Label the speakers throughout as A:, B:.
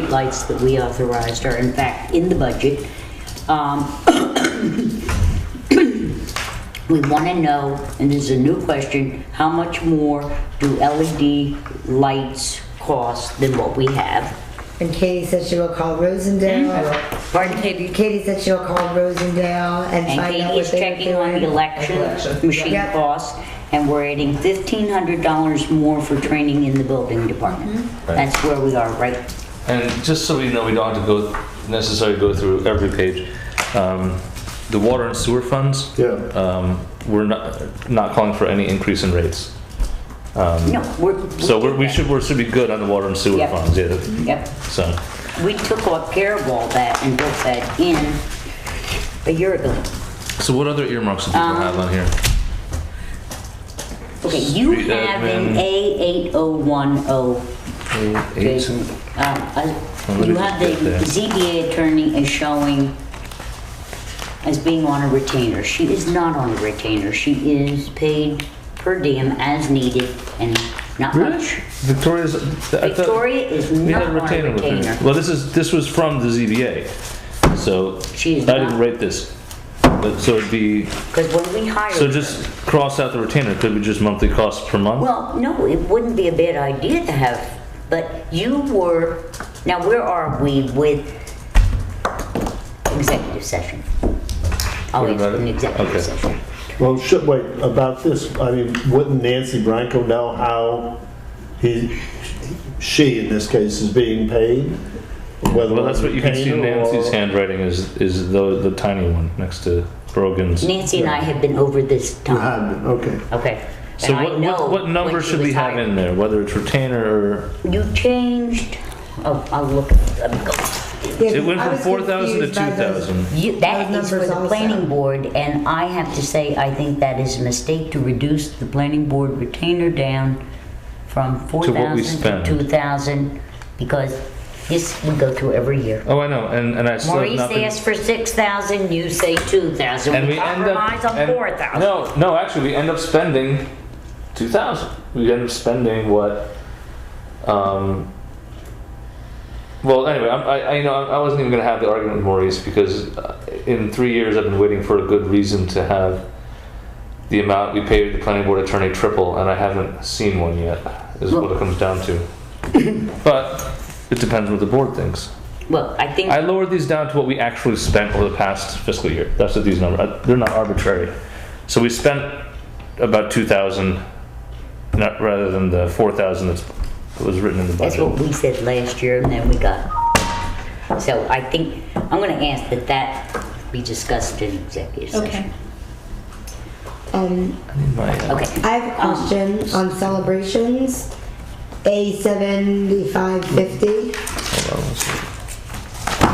A: streetlights that we authorized are in fact in the budget. Um, We want to know, and this is a new question, how much more do LED lights cost than what we have?
B: And Katie said she will call Rosendale.
A: Pardon?
B: Katie. Katie said she'll call Rosendale and
A: And
B: find out
A: Katie
B: what
A: is
B: they're
A: checking on the
B: doing.
A: election machine
B: Yep.
A: costs, and we're adding fifteen hundred dollars more for training in the building department.
B: Mm-hmm.
C: Right.
A: That's where we are, right?
C: And just so we know, we don't have to go, necessarily go through every page, um, the water and sewer funds.
D: Yeah.
C: Um, we're not, not calling for any increase in rates.
A: No, we're.
C: So we're, we
A: did
C: should, we should be good on the water and sewer
A: Yep.
C: funds, yeah.
A: that. Yep,
C: So,
A: we took all care of all that and built that in a year ago.
C: so what other earmarks do people
A: Um,
C: have on here?
A: Okay, you
C: Street
A: have an
C: admin.
A: A eight oh one oh
C: Eight,
A: Um, I-
C: Well, let
A: You
C: me
A: have
C: just
A: the
C: get there.
A: ZBA attorney is showing as being on a retainer. She is not on a retainer. She is paid per diem as needed and not much.
C: Victoria's, I thought
A: Victoria is
C: we
A: Um, not
C: had a
A: on a
C: retainer with
A: retainer.
C: her. Well, this is, this was from the ZBA, so
A: She is
C: I didn't
A: not.
C: write this. But, so it'd be,
A: Because when we hired
C: so just cross out the retainer, could be just monthly costs per month?
A: Well, no, it wouldn't be a bad idea to have, but you were, now where are we with executive session? Oh,
C: What
A: it's
C: about it?
A: an
C: Okay.
A: executive session.
D: Well, should, wait, about this, I mean, wouldn't Nancy Branco know how he, she in this case is being paid? Whether
C: Well, that's what you can see in
D: retainer or-
C: Nancy's handwriting is, is the, the tiny one next to Brogan's.
A: Nancy and I have been over this
D: You
A: time,
D: had it, Okay.
A: okay?
C: So
A: And I
C: what,
A: know
C: what, what
A: when
C: number
A: she
C: should we
A: was
C: have
A: hired.
C: in there, whether it's retainer or,
A: You changed, oh, I'll look, let me go.
B: Yeah,
C: it went
B: I
C: from
B: was
C: four thousand to two
B: confused by those.
C: thousand.
A: You, that
B: Those
A: is for
B: numbers
A: the
B: also.
A: planning board, and I have to say, I think that is a mistake to reduce the planning board retainer down from four
C: To what we
A: thousand to
C: spend.
A: two thousand, because this, we go through every year.
C: Oh, I know, and, and I still have
A: Maurice
C: nothing.
A: asked for six thousand, you say two thousand,
C: And
A: we
C: we end
A: compromise
C: up.
A: on
C: and-
A: four thousand.
C: No, no, actually, we end up spending two thousand. We end up spending what, um, well, anyway, I'm- I, I, you know, I wasn't even gonna have the argument with Maurice because uh, in three years, I've been waiting for a good reason to have the amount we paid the planning board attorney triple, and I haven't seen one yet, is what it comes down to. But it depends what the board thinks.
A: Well, I think,
C: I lowered these down to what we actually spent over the past fiscal year. That's what these numbers, uh, they're not arbitrary. So we spent about two thousand, not, rather than the four thousand that's, that was written in the
A: that's what
C: budget.
A: we said last year, and then we got. So I think, I'm gonna ask that that be discussed in executive
E: Okay.
A: session.
B: Um,
C: My, uh,
A: Okay,
B: I have a question on celebrations. A seventy-five fifty.
C: hold on one second.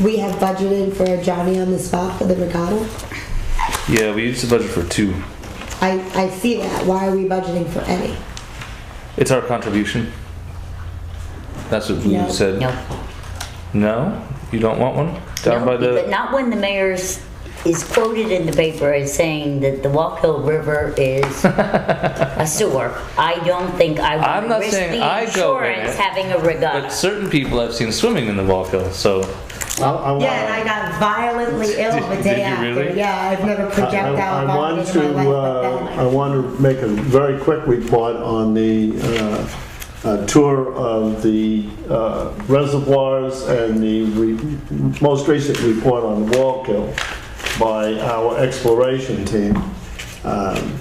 B: We have budgeted for a Johnny on the spot for the regatta.
C: Yeah, we used the budget for two.
B: I, I see that. Why are we budgeting for any?
C: It's our contribution. That's what
B: No.
C: we said.
A: no.
C: No? You don't want one?
A: No,
C: Down by
A: but
C: the,
A: Not when the mayor's, is quoted in the paper as saying that the Walk Hill River is a sewer. I don't think I
C: I'm
A: would
C: not
A: risk
C: saying
A: the
C: I go in
A: insurance
C: it,
A: having a
C: but
A: regatta.
C: certain people I've seen swimming in the Walkill, so.
D: I, I want.
B: Yeah, and I got violently ill
C: Did-
B: the
C: did
B: day
C: you
B: after.
C: really?
B: Yeah, I've never
D: I- I-
B: projectile
D: I want
B: vomited in my
D: to,
B: life
D: uh,
B: but
D: I
B: then
D: want to make a very quick report on the uh, uh, tour of the uh, reservoirs and the re- most recent report on the Wallkill by our exploration team. Um,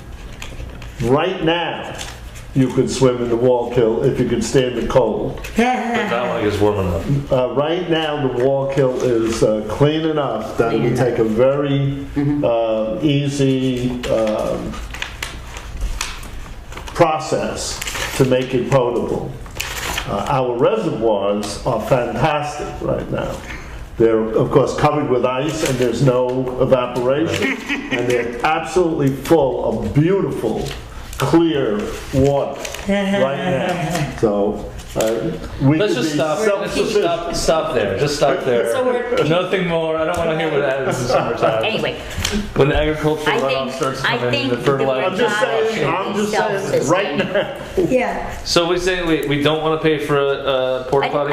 D: Right now, you could swim in the Wallkill if you could stand the cold.
C: That one is warming up.
D: Uh, right now, the Wallkill is uh, clean enough that we take a very uh, easy um, process to make it potable. Uh, our reservoirs are fantastic right now. They're, of course, covered with ice and there's no evaporation. and they're absolutely full of beautiful, clear water right now. So uh, we
C: Let's
D: could
C: just
D: be
C: stop. Let's just
D: self-sufficient.
C: stop. Stop there. Just stop there.
E: So we're-
C: Nothing more. I don't want to hear what happens in summertime.
A: Anyway,
C: When the agricultural
A: I
C: runoff
A: think-
C: starts
A: I
C: coming,
A: think
C: in, the
A: the
C: fertilizer.
D: I'm just saying, I'm just saying, right now.
B: yeah.
C: So we say we, we don't want to pay for a, a porta
A: I-
C: potty.